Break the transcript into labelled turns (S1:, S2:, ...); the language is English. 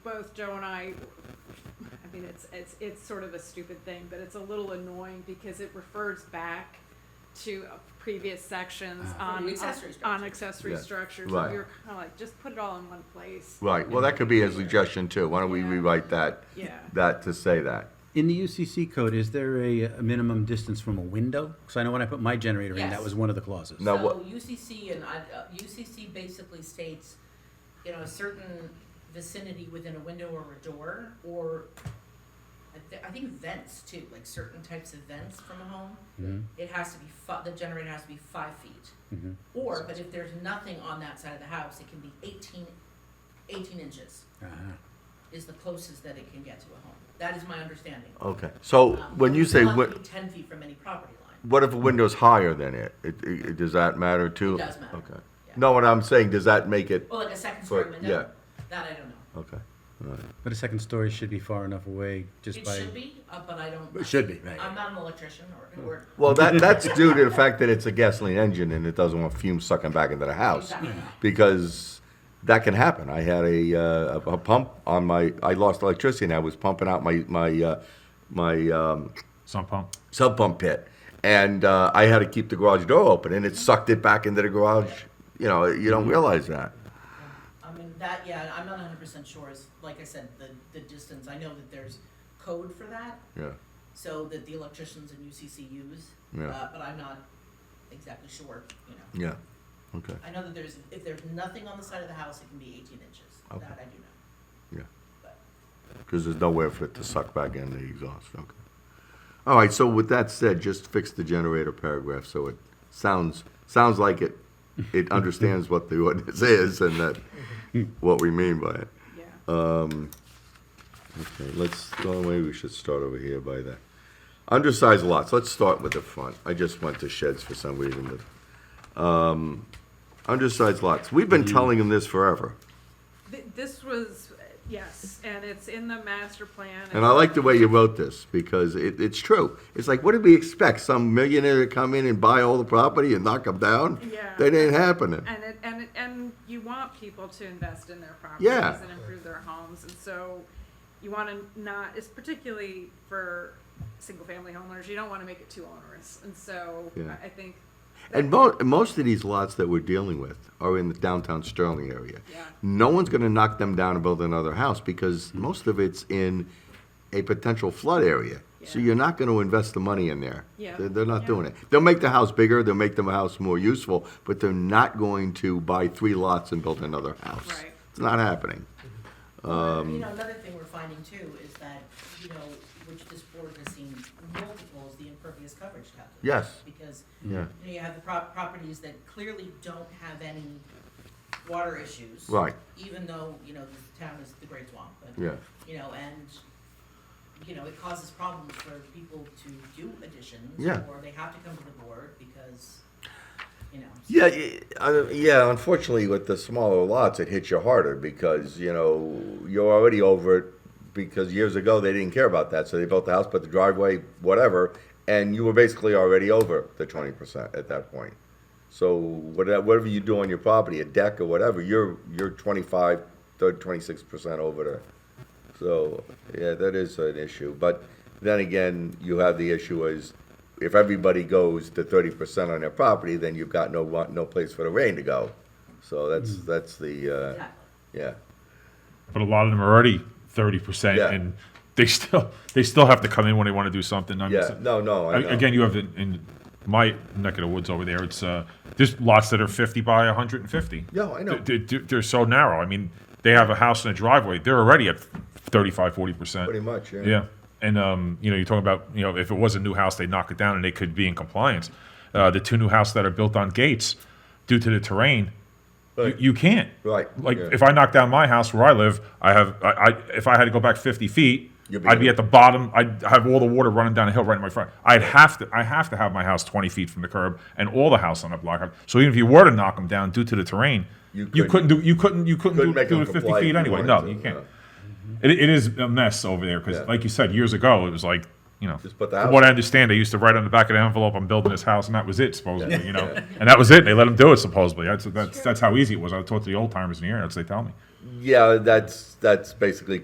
S1: both Joe and I, I mean, it's, it's, it's sort of a stupid thing, but it's a little annoying because it refers back to uh, previous sections
S2: Ah.
S1: on.
S3: From the accessory
S1: On
S3: structures.
S1: accessory
S2: Yeah,
S1: structures, and
S2: right.
S1: we were kinda like, just put it all in one place,
S2: Right, well, that could be a suggestion too. Why don't we
S1: Yeah.
S2: rewrite that,
S1: yeah.
S2: that to say that?
S4: In the UCC code, is there a, a minimum distance from a window? Because I know when I put my generator in, that
S3: Yes.
S4: was one of the clauses.
S2: No. Now
S3: so
S2: what-
S3: UCC and I, uh, UCC basically states, you know, a certain vicinity within a window or a door, or I, th- I think vents too, like certain types of vents from a home.
S4: Mhm,
S3: It has to be fi- the generator has to be five feet,
S4: mhm.
S3: or but if there's nothing on that side of the house, it can be 18, 18 inches
S4: Ah.
S3: is the closest that it can get to a home. That is my understanding.
S2: Okay, so
S3: Um,
S2: when you
S3: it's
S2: say,
S3: not
S2: wi-
S3: to be ten feet from any property line.
S2: what if a window's higher than it? It, it- it- does that matter too?
S3: It does matter.
S2: Okay.
S3: Yeah.
S2: No, what I'm saying, does that make it,
S3: Well, like a second story
S2: But,
S3: window. That I don't know.
S2: okay, all right.
S4: But a second story should be far enough away just
S3: It
S4: by.
S3: should be, uh, but I don't.
S4: It should be, right. Hmm.
S3: I'm not an electrician or, or.
S2: Well, that, that's due to the fact that it's a gasoline engine and it doesn't want fumes sucking back into the house.
S3: Exactly.
S2: Because that can happen. I had a, uh, a a pump on my, I lost electricity and I was pumping out my, my, uh, my, um,
S5: Sump pump.
S2: sub pump pit, and uh, I had to keep the garage door open, and it sucked it back into the garage. You know, you don't
S5: Mm-hmm.
S2: realize that.
S3: I mean, that, yeah, I'm not hundred percent sure is, like I said, the, the distance, I know that there's code for that,
S2: Yeah,
S3: so that the electricians and UCC use.
S2: Yeah.
S3: Uh, but I'm not exactly sure, you know.
S2: yeah, okay,
S3: I know that there's, if there's nothing on the side of the house, it can be eighteen inches,
S2: Okay.
S3: that I do know,
S2: yeah,
S3: but.
S2: because there's nowhere for it to suck back in the exhaust. Okay. All right. So with that said, just fix the generator paragraph so it sounds sounds like it it understands what the ordinance is and that what we mean by it.
S1: Yeah.
S2: Uh. Okay, let's, the only way we should start over here by the, undersized lots, let's start with the front. I just went to sheds for some reason, but, um, undersized lots, we've been telling them this forever.
S1: Th- This was, yes, and it's in the master plan.
S2: And I like the way you wrote this, because it, it's true. It's like, what did we expect, some millionaire to come in and buy all the property and knock them down?
S1: Yeah.
S2: That ain't happening.
S1: And it, and, it- and you want people to invest in their
S2: Yeah.
S1: properties and improve their homes, and so you wanna not, it's particularly for single-family homeowners, you don't wanna make it too onerous, and so
S2: Yeah.
S1: I I think.
S2: And mo- most of these lots that we're dealing with are in the downtown Sterling area.
S1: Yeah.
S2: No one's going to knock them down and build another house because most of it's in a potential flood area. So
S1: Yeah.
S2: you're not going to invest the money in there.
S1: Yeah.
S2: They're, they're not
S1: Yeah.
S2: doing it. They'll make the house bigger, they'll make the house more useful, but they're not going to buy three lots and build another house.
S1: Right.
S2: It's not happening.
S4: Um,
S3: You know, another thing we're finding too is that, you know, which this board has seen multiples, the impervious coverage calculation.
S2: Yes.
S3: Because
S2: Yeah.
S3: You know, you have the prop- properties that clearly don't have any water issues.
S2: Right.
S3: Even though, you know, the town is the Great Swamp, but.
S2: Yeah.
S3: You know, and, you know, it causes problems for people to do additions.
S2: Yeah.
S3: Or they have to come to the board because, you know.
S2: Yeah, y- uh, yeah. Unfortunately, with the smaller lots, it hits you harder because you know you're already over it. Because years ago they didn't care about that, so they built the house, put the driveway, whatever, and you were basically already over the twenty percent at that point. So whatever, whatever you do on your property, a deck or whatever, you're you're 25, 26 percent over there. So yeah, that is an issue. But then again, you have the issue is if everybody goes to thirty percent on their property, then you've got no wa- no place for the rain to go. So that's
S5: Hmm.
S2: that's the uh,
S3: Exactly.
S2: yeah
S5: But a lot of them are already thirty percent,
S2: Yeah.
S5: and they still they still have to come in when they want to do something. I mean,
S2: yeah
S5: so-
S2: no no I
S5: a-
S2: know.
S5: Again, you have in, in my neck of the woods over there. It's uh, there's lots that are fifty by one hundred and fifty.
S2: Yeah, I know.
S5: They, are so narrow. I mean, they have a house and a driveway. They're already at 35, 40 percent.
S2: pretty much yeah.
S5: Yeah, and um, you know, you're talking about you know, if it was a new house, they'd knock it down and they could be in compliance. Uh, the two new houses that are built on gates, due to the terrain,
S2: Right.
S5: you, you can't.
S2: Right,
S5: Like
S2: yeah.
S5: if I knock down my house where I live, I have I, I if I had to go back 50 feet.
S2: You'd be
S5: I'd be
S2: in-
S5: at the bottom. I'd have all the water running down a hill right in my front. I'd have to. I have to have my house 20 feet from the curb and all the house on the block. So even if you were to knock them down due to the terrain,
S2: You
S5: you,
S2: couldn't-
S5: couldn't do. You couldn't. You couldn't,
S2: Couldn't
S5: do,
S2: make
S5: do
S2: them
S5: it 50
S2: comply if
S5: feet
S2: you
S5: anyway.
S2: wanted
S5: No,
S2: to,
S5: you can't.
S2: no.
S5: It, it is a mess over there because,
S2: Yeah.
S5: like you said, years ago it was like you know.
S2: Just put the
S5: from
S2: house
S5: What I
S2: up.
S5: understand, they used to write on the back of the envelope, "I'm building this house," and that was it, supposedly. You know, and that was it. They let them do it, supposedly. That's that's, that's how easy it was. I talked to the old timers in the area. That's what they tell me.
S2: yeah that's that's basically